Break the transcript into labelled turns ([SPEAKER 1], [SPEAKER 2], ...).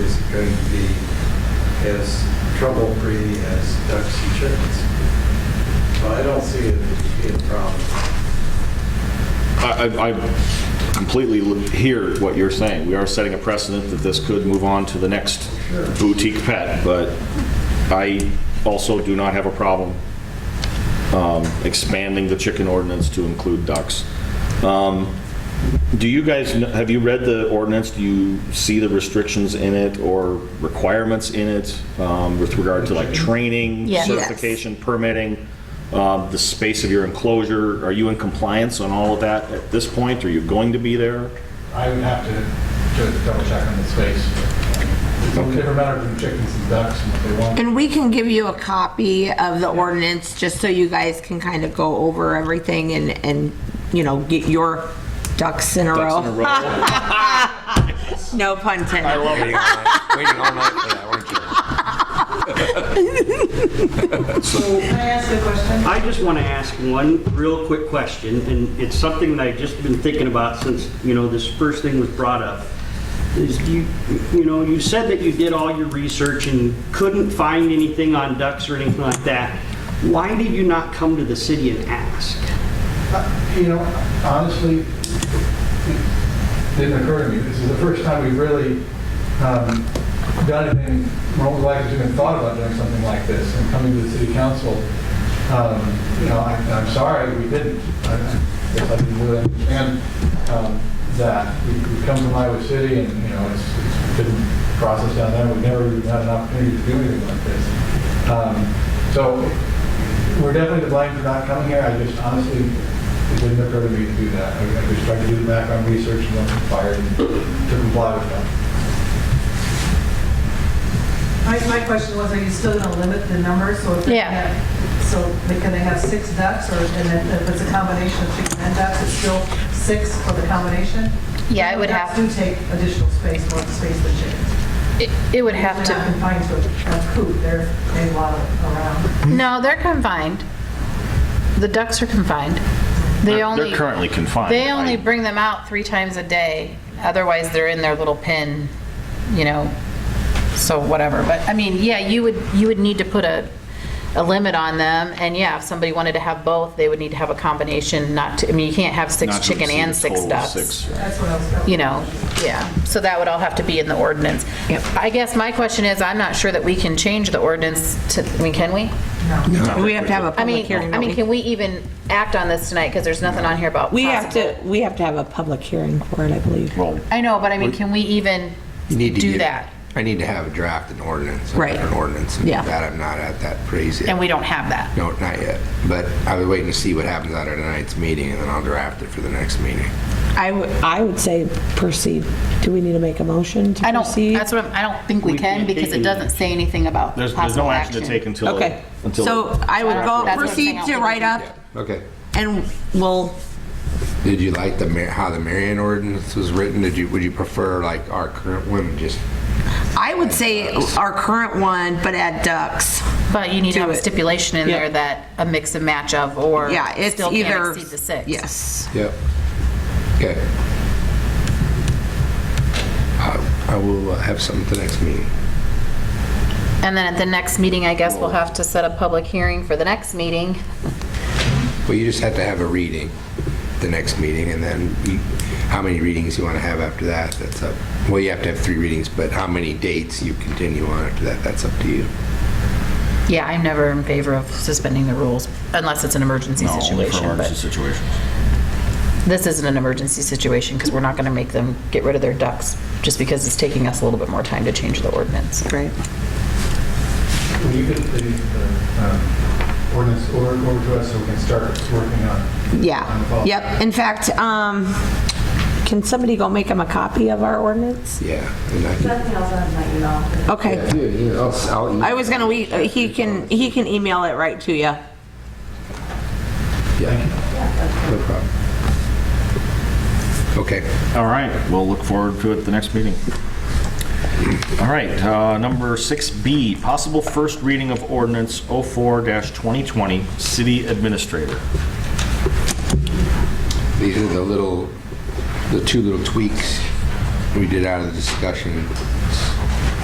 [SPEAKER 1] going to be as trouble-free as ducks and chickens. So I don't see it being a problem.
[SPEAKER 2] I, I- I completely li- hear what you're saying. We are setting a precedent that this could move on to the next
[SPEAKER 1] Sure.
[SPEAKER 2] boutique pet, but I also do not have a problem um, expanding the chicken ordinance to include ducks. Um, Do you guys, kn- have you read the ordinance? Do you see the restrictions in it or requirements in it um, with regard to like training,
[SPEAKER 3] Yes. Yes.
[SPEAKER 2] certification, permitting, um, the space of your enclosure? Are you in compliance on all of that at this point? Are you going to be there?
[SPEAKER 4] I would have to just double check on the space. It's a different matter from chickens and ducks and what they want.
[SPEAKER 3] And we can give you a copy of the ordinance, just so you guys can kind of go over everything and, and, you know, get your ducks in a
[SPEAKER 2] Ducks in a
[SPEAKER 3] row.
[SPEAKER 2] row?
[SPEAKER 3] No pun intended.
[SPEAKER 5] love waiting all night, waiting all night for that, weren't you?
[SPEAKER 6] Can I ask a question?
[SPEAKER 7] I just want to ask one real quick question, and it's something that I've just been thinking about since, you know, this first thing was brought up. Is you, you know, you said that you did all your research and couldn't find anything on ducks or anything like that. Why did you not come to the city and ask?
[SPEAKER 4] Uh, You know, honestly, it didn't occur to me. This is the first time we've really um, done anything, Rome like has even thought about doing something like this and coming to the city council. Um, You know, I- I'm sorry, we didn't. I I guess I didn't really understand um, that. We- We've come from Iowa City and, you know, it's it's been a process down there. We've never even had an opportunity to do anything like this. Um, So we're definitely to blame for not coming here, I just honestly, it didn't occur to me to do that. I I just tried to do the background research and was required to comply with that.
[SPEAKER 6] My, my question was, are you still gonna limit the number, so if they
[SPEAKER 3] Yeah.
[SPEAKER 6] have, so they- can they have six ducks, or, and if if it's a combination of chicken and ducks, it's still six for the combination?
[SPEAKER 8] Yeah, it would
[SPEAKER 6] Ducks
[SPEAKER 8] have-
[SPEAKER 6] do take additional space, more space than chickens.
[SPEAKER 8] It it would have
[SPEAKER 6] They're not
[SPEAKER 8] to,
[SPEAKER 6] confined to a coop, they're, they waddle around.
[SPEAKER 8] no, they're confined. The ducks are confined. They
[SPEAKER 2] They're
[SPEAKER 8] only,
[SPEAKER 2] they're currently confined.
[SPEAKER 8] they only
[SPEAKER 2] I-
[SPEAKER 8] bring them out three times a day. Otherwise, they're in their little pen, you know, so whatever. But, I mean, yeah, you would, you would need to put a, a limit on them. And yeah, if somebody wanted to have both, they would need to have a combination, not to, I mean, you can't have six
[SPEAKER 2] not to
[SPEAKER 8] chicken and
[SPEAKER 2] exceed a
[SPEAKER 8] six
[SPEAKER 2] total of
[SPEAKER 8] ducks.
[SPEAKER 2] six.
[SPEAKER 6] That's what I was going
[SPEAKER 8] you know, yeah. So that would all have to be in the ordinance. I guess my question is, I'm not sure that we can change the ordinance to, I mean, can we?
[SPEAKER 3] We have to have a
[SPEAKER 8] I
[SPEAKER 3] public
[SPEAKER 8] mean,
[SPEAKER 3] hearing.
[SPEAKER 8] I mean,
[SPEAKER 3] don't
[SPEAKER 8] can we even act on this tonight? Because there's nothing on here about
[SPEAKER 9] We have
[SPEAKER 8] possible.
[SPEAKER 9] to, we have to have a public hearing for it, I believe.
[SPEAKER 2] Well,
[SPEAKER 8] I know, but I mean, can we even
[SPEAKER 5] You need to
[SPEAKER 8] do
[SPEAKER 5] get-
[SPEAKER 8] that?
[SPEAKER 5] I need to have a draft and ordinance.
[SPEAKER 9] Right.
[SPEAKER 5] An ordinance. and
[SPEAKER 9] Yeah.
[SPEAKER 5] That I'm not at that phase
[SPEAKER 8] And
[SPEAKER 5] yet.
[SPEAKER 8] we don't have that.
[SPEAKER 5] No, not yet. But I was waiting to see what happens out of tonight's meeting, and then I'll draft it for the next meeting.
[SPEAKER 9] I would, I would say proceed. Do we need to make a motion to
[SPEAKER 8] I don't,
[SPEAKER 9] proceed?
[SPEAKER 8] that's what, I'm- I don't think we
[SPEAKER 2] We
[SPEAKER 8] can
[SPEAKER 2] can't take
[SPEAKER 8] because it
[SPEAKER 2] any-
[SPEAKER 8] doesn't say anything about
[SPEAKER 2] There's there's no
[SPEAKER 8] possible
[SPEAKER 2] action to take
[SPEAKER 8] action.
[SPEAKER 2] until.
[SPEAKER 9] Okay.
[SPEAKER 2] until-
[SPEAKER 3] So I would go
[SPEAKER 8] That's what I'm saying,
[SPEAKER 3] proceed
[SPEAKER 8] I'll
[SPEAKER 3] to
[SPEAKER 8] take
[SPEAKER 3] write
[SPEAKER 8] it.
[SPEAKER 3] up
[SPEAKER 5] Yeah. Okay.
[SPEAKER 3] and we'll,
[SPEAKER 5] Did you like the, Mar- how the Marion ordinance was written? Did you, would you prefer like our current one, just
[SPEAKER 3] I would say our current one, but add ducks.
[SPEAKER 8] But you need to have a
[SPEAKER 3] Do it.
[SPEAKER 8] stipulation in
[SPEAKER 9] Yeah.
[SPEAKER 8] there that a mix and match of or
[SPEAKER 3] Yeah, it's
[SPEAKER 8] still
[SPEAKER 3] either.
[SPEAKER 8] can't exceed the six.
[SPEAKER 3] Yes.
[SPEAKER 5] Yep. Okay. I I will uh, have something for the next meeting.
[SPEAKER 8] And then at the next meeting, I guess we'll have to set a public hearing for the next meeting.
[SPEAKER 5] Well, you just have to have a reading, the next meeting, and then you- how many readings you want to have after that, that's up. Well, you have to have three readings, but how many dates you continue on after that, that's up to you.
[SPEAKER 8] Yeah, I'm never in favor of suspending the rules unless it's an emergency
[SPEAKER 2] No, only for
[SPEAKER 8] situation,
[SPEAKER 2] emergency
[SPEAKER 8] but
[SPEAKER 2] situations.
[SPEAKER 8] this isn't an emergency situation because we're not going to make them get rid of their ducks just because it's taking us a little bit more time to change the ordinance.
[SPEAKER 9] Right.
[SPEAKER 4] Will you get the the, um, ordinance over over to us so we can start working on? on the
[SPEAKER 3] Yeah.
[SPEAKER 4] policy?
[SPEAKER 3] Yep. In fact, um,
[SPEAKER 9] Can somebody go make him a copy of our ordinance?
[SPEAKER 5] Yeah. and I-
[SPEAKER 6] Nothing else on my email.
[SPEAKER 3] okay.
[SPEAKER 5] Yeah, yeah, I'll- I'll-
[SPEAKER 3] I was gonna, we, he can, he can email it right to you.
[SPEAKER 5] Yeah, no problem. Okay.
[SPEAKER 2] All right, we'll look forward to it the next meeting. All right, uh, number 6B, possible first reading of ordinance 04-2020, city administrator.
[SPEAKER 5] These are the little, the two little tweaks we did out of the discussion